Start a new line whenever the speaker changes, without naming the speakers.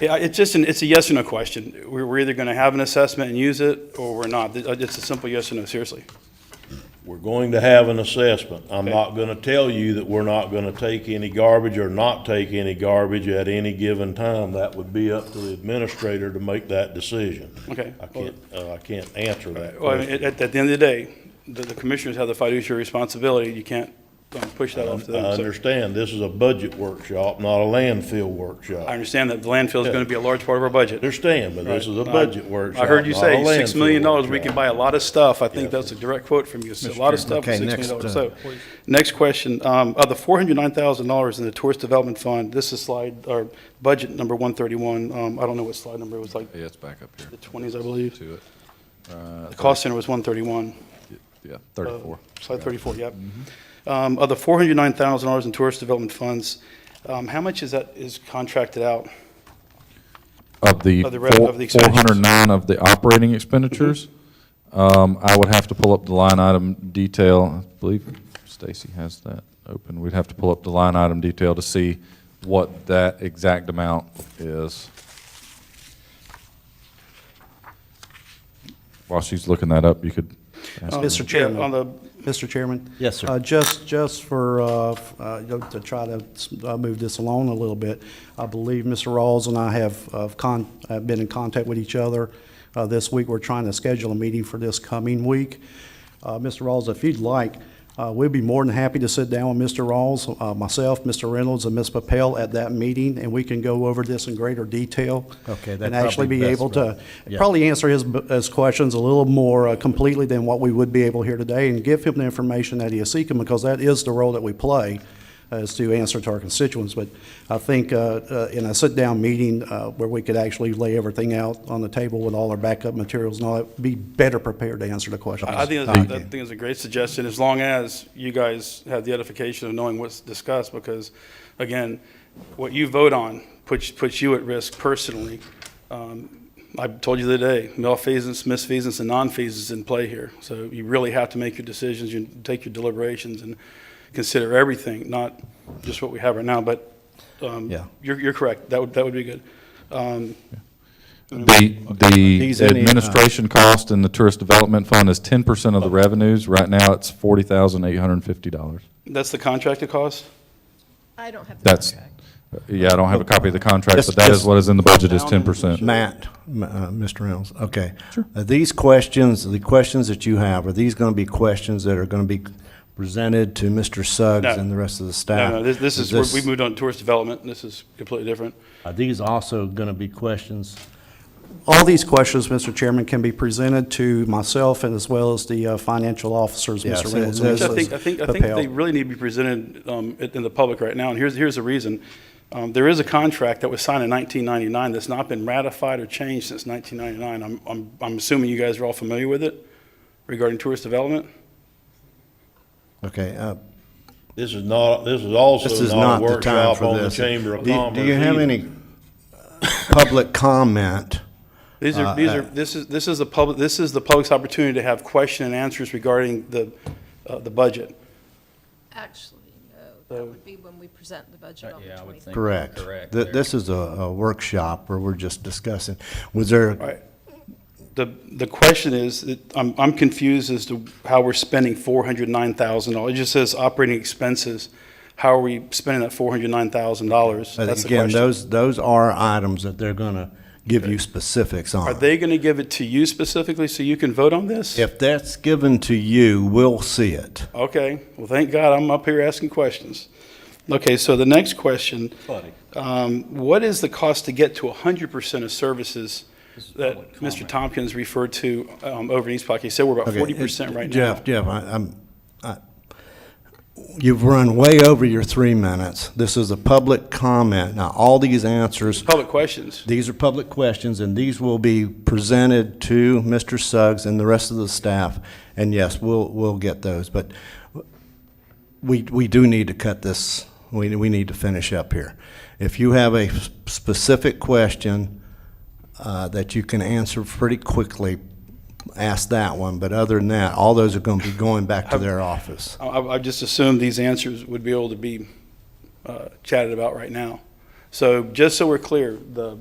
Yeah, it's just an, it's a yes or no question. We're, we're either gonna have an assessment and use it, or we're not. It- It's a simple yes or no, seriously.
We're going to have an assessment. I'm not gonna tell you that we're not gonna take any garbage or not take any garbage at any given time. That would be up to the administrator to make that decision.
Okay.
I can't, uh, I can't answer that
Well, I mean,
question.
at, at the end of the day, the, the commissioners have the fiduciary responsibility. You can't um, push that
I
off to them. So
understand, this is a budget workshop, not a landfill workshop.
I understand that the landfill is gonna be a large part of our budget.
Understand, but this is a budget
I-
workshop.
I heard you
not
say
a
six million
landfill
dollars, we can
workshop.
buy a lot of stuff. I think that's a direct quote from you. So A lot of stuff, with
Okay,
six million dollars.
next,
So,
uh,
next question, um, of the four hundred nine thousand dollars in the tourist development fund, this is slide, or budget number one thirty-one. Um, I don't know what slide number, it was like
Yeah, it's back up here
the twenties, I believe.
to it. Uh,
The cost center was one thirty-one. Uh,
Yeah, 34.
Slide 34, yep. Um, Of the $409,000 in tourist development funds, um, how much is that, is contracted out?
Of the
Of the rev-
four-
of the expenditures.
409 of the operating expenditures, um, I would have to pull up the line item detail. I believe Stacy has that open. We'd have to pull up the line item detail to see what that exact amount is. While she's looking that up, you could ask
Mr.
Yeah,
Chairman.
On the,
Mr. Chairman?
Yes, sir.
Uh, Just, just for, uh, f- uh, you know, to try to uh, move this along a little bit, I believe Mr. Rawls and I have uh, con- uh, been in contact with each other uh, this week. We're trying to schedule a meeting for this coming week. Uh, Mr. Rawls, if you'd like, uh, we'd be more than happy to sit down with Mr. Rawls, uh, myself, Mr. Reynolds, and Ms. Papel at that meeting, and we can go over this in greater detail.
Okay, that'd
And actually
probably
be
best
able to,
for- yeah.
probably probably answer his, his questions a little more uh, completely than what we would be able here today and give him the information that he is seeking because that is the role that we play uh, is to answer to our constituents. But I think uh, uh, in a sit-down meeting uh, where we could actually lay everything out on the table with all our backup materials and all that, be better prepared to answer the questions.
I I think, that's- I think it's a great suggestion, as long as you guys have the edification of knowing what's discussed, because, again, what you vote on puts, puts you at risk personally. Um, I told you the other day, malfeasance, misfeasance, and nonfeasance in play here. So you really have to make your decisions, you take your deliberations, and consider everything, not just what we have right now, but um,
Yeah.
you're, you're correct, that would, that would be good. Um,
The,
These
the
any, uh,
administration cost in the tourist development fund is ten percent of
Oh.
the revenues. Right now, it's forty thousand eight hundred and fifty dollars.
That's the contracted cost?
I don't have the
That's,
contract.
yeah, I don't have a copy of the contract, but
Just-
that is
just-
what is in the budget, is ten percent.
Matt, m- uh, Mr. Reynolds, okay. Sure. These questions, the questions that you have, are these going to be questions that are going to be presented to Mr. Suggs
No.
and the rest of the
No,
staff?
no, this, this is, we moved on to tourist development, and this is completely different.
Are these also going to be questions?
All these questions, Mr. Chairman, can be presented to myself and as well as the uh, financial officers,
Yes,
Mr. Reynolds.
it-
and
this
I
Mrs.
think, I think, I think
Papel.
they really need to be presented um, in in the public right now, and here's, here's the reason. Um, There is a contract that was signed in 1999 that's not been ratified or changed since 1999. I'm, I'm, I'm assuming you guys are all familiar with it regarding tourist development?
Okay, uh,
This is not, this is
this
also
is
not
not
a
the time
workshop
for
on the
this.
Chamber of
Do-
Commerce.
Do you have
either.
any public comment?
These
Uh,
are, these are, this is, this is the public, this is the public's opportunity to have question and answers regarding the, uh, the budget.
Actually, no, that would be when we present the budget on the 23rd.
Correct. Th- This is a- a workshop where we're just discussing. Was there
All right. The, the question is, it- I'm, I'm confused as to how we're spending four hundred nine thousand dollars. It just says operating expenses. How are we spending that four hundred nine thousand dollars?
But
That's the
uh, Again,
question.
those, those are items that they're going to give you specifics on.
Are they gonna give it to you specifically so you can vote on this?
If that's given to you, we'll see it.
Okay, well, thank God I'm up here asking questions. Okay, so the next question. Um, what is the cost to get to hundred percent of services that Mr. Tompkins referred to, um, over in East Pocket? He said we're about
Okay,
forty percent right now.
Jeff, Jeff, I, I'm, I, you've run way over your three minutes. This is a public comment. Now, all these answers,
Public questions.
these are public questions, and these will be presented to Mr. Suggs and the rest of the staff. And yes, we'll, we'll get those, but we, we do need to cut this, we, we need to finish up here. If you have a s- specific question uh, that you can answer pretty quickly, ask that one. But other than that, all those are going to be going back to their office.
I- I, I just assumed these answers would be able to be uh, chatted about right now. So just so we're clear, the